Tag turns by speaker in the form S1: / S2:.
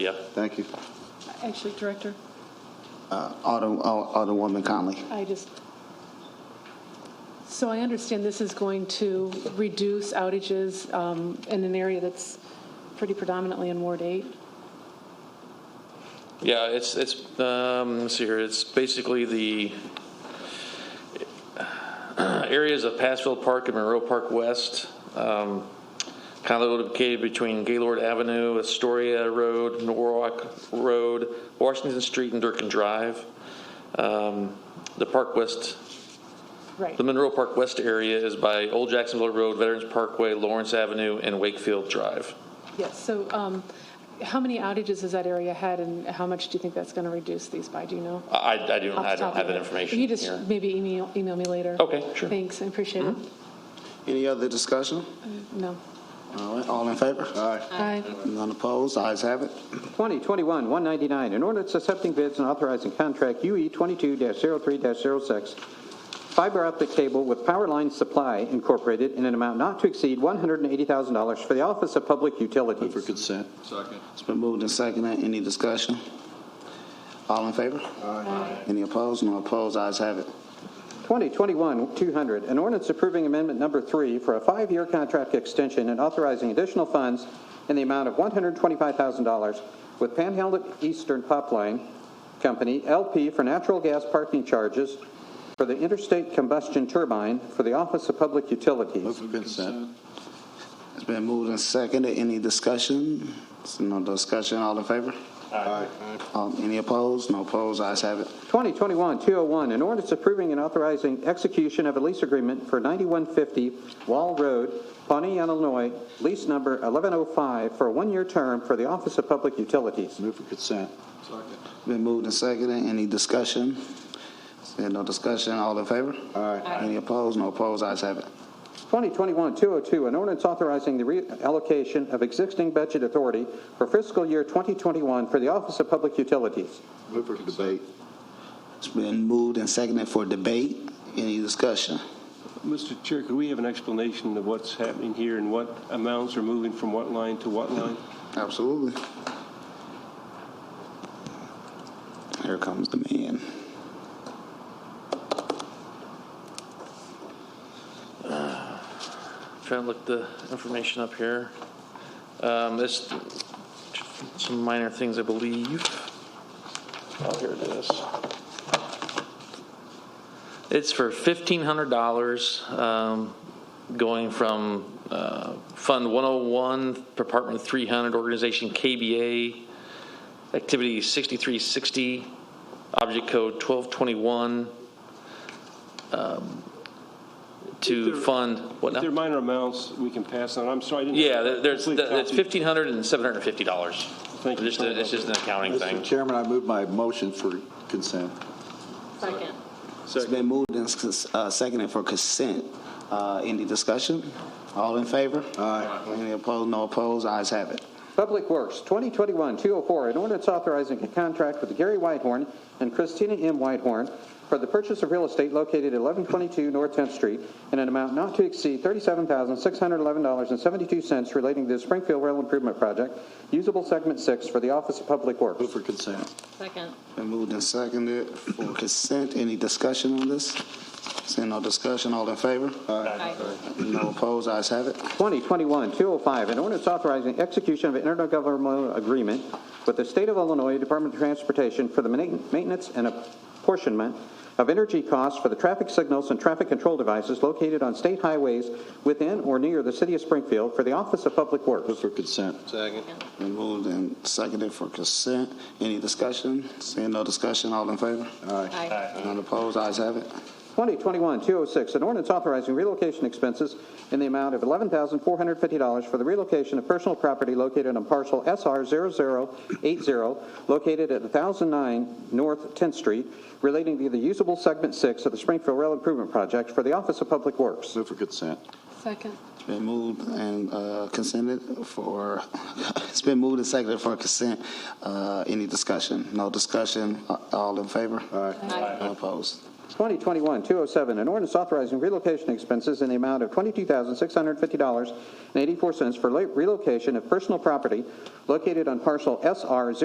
S1: Yep.
S2: Thank you.
S3: Actually, Director,
S2: Uh, Alder- Al- Alderwoman Conley.
S3: I just, so I understand this is going to reduce outages um, in an area that's pretty predominantly in Ward 8?
S1: Yeah, it's, it's, um, let's see here, it's basically the uh, areas of Passville Park and Monroe Park West, um, kind of located between Gaylord Avenue, Astoria Road, Norwalk Road, Washington Street, and Durkin Drive. Um, The Park West
S3: Right.
S1: The Monroe Park West area is by Old Jacksonville Road, Veterans Parkway, Lawrence Avenue, and Wakefield Drive.
S3: Yes, so um, how many outages has that area had, and how much do you think that's going to reduce these by, do you know?
S1: I, I do not,
S3: Off
S1: I
S3: the top
S1: don't have
S3: of your
S1: that
S3: head.
S1: information
S3: You
S1: here.
S3: just maybe email, email me later.
S1: Okay, sure. Mm-hmm.
S3: Thanks, I appreciate it.
S2: Any other discussion?
S3: No.
S2: All right, all in favor? Aye.
S3: Aye.
S2: None opposed, ayes have it.
S4: 2021-199, an ordinance accepting bids and authorizing contract E UE 22-03-06, fiber optic cable with Power Line Supply Incorporated in an amount not to exceed $180,000 for the Office of Public Utilities.
S2: consent. It's been moved and seconded, any discussion? All in favor? Aye. Any opposed? No opposed, ayes have it.
S4: 2021-200, an ordinance approving amendment number three for a five-year contract extension and authorizing additional funds in the amount of $125,000 with Panhandle Eastern Pipeline Company, LP, for natural gas parking charges for the interstate combustion turbine for the Office of Public Utilities.
S2: consent. It's been moved and seconded, any discussion? There's No discussion, all in favor? Aye. Any opposed? No opposed, ayes have it.
S4: 2021-201, an ordinance approving and authorizing execution of a lease agreement for 9150 Wall Road, Pawnee, Illinois, lease number 1105, for a one-year term for the Office of Public Utilities.
S2: Move for consent. Been moved and seconded. Any discussion? Said no discussion. All in favor? Aye. Any opposed? No opposed. Ayes have it.
S4: 2021-202, an ordinance authorizing the reallocation of existing budget authority for fiscal year 2021 for the Office of Public Utilities.
S5: Move for debate.
S2: It's been moved and seconded for debate. Any discussion?
S6: Mr. Chair, could we have an explanation of what's happening here and what amounts are moving from what line to what line?
S2: Absolutely. Here comes the man.
S1: Trying to look the information up here. Um, There's some minor things, I believe. Oh, here it is. It's for $1,500, um, going from uh, Fund 101, Department 300, Organization KBA, Activity 6360, Object Code 1221, um, to
S6: There-
S1: fund, what now?
S6: If they're minor amounts, we can pass on. I'm sorry, I didn't.
S1: Yeah, there- there's,
S6: complete
S1: it's
S6: copy.
S1: fifteen hundred and seven hundred and fifty dollars.
S6: Thank you.
S1: It's just, a- it's just an accounting
S5: Mr.
S1: thing.
S5: Chairman, I move my motion for consent.
S7: Second.
S2: It's been moved and uh, seconded for consent. Uh, Any discussion? All in favor? Aye. Any opposed? No opposed. Ayes have it.
S4: Public Works, 2021-204, an ordinance authorizing a contract with Gary Whitehorn and Christina M. Whitehorn for the purchase of real estate located at 1122 North 10th Street in an amount not to exceed $37,611.72 relating to the Springfield Rail Improvement Project, usable segment six for the Office of Public Works.
S5: Move for consent.
S7: Second.
S2: Been moved and seconded for consent. Any discussion on this? Seeing no discussion, all in favor?
S7: Aye.
S2: No opposed, ayes have it.
S4: 2021-205, an ordinance authorizing execution of an intergovernmental agreement with the State of Illinois Department of Transportation for the ma- maintenance and apportionment of energy costs for the traffic signals and traffic control devices located on state highways within or near the city of Springfield for the Office of Public Works.
S5: Move for consent.
S2: Been moved and seconded for consent. Any discussion? Seeing no discussion, all in favor?
S7: Aye.
S2: None opposed, ayes have it.
S4: 2021-206, an ordinance authorizing relocation expenses in the amount of $11,450 for the relocation of personal property located on parcel SR 0080, located at 1009 North 10th Street, relating to the usable segment six of the Springfield Rail Improvement Project for the Office of Public Works.
S5: Move for consent.
S3: Second.
S2: It's been moved and uh, consented for, it's been moved and seconded for consent. Uh, Any discussion? No discussion, A- all in favor?
S7: Aye.
S2: No opposed.
S4: 2021-207, an ordinance authorizing relocation expenses in the amount of $22,650.84 for la- relocation of personal property located on parcel SR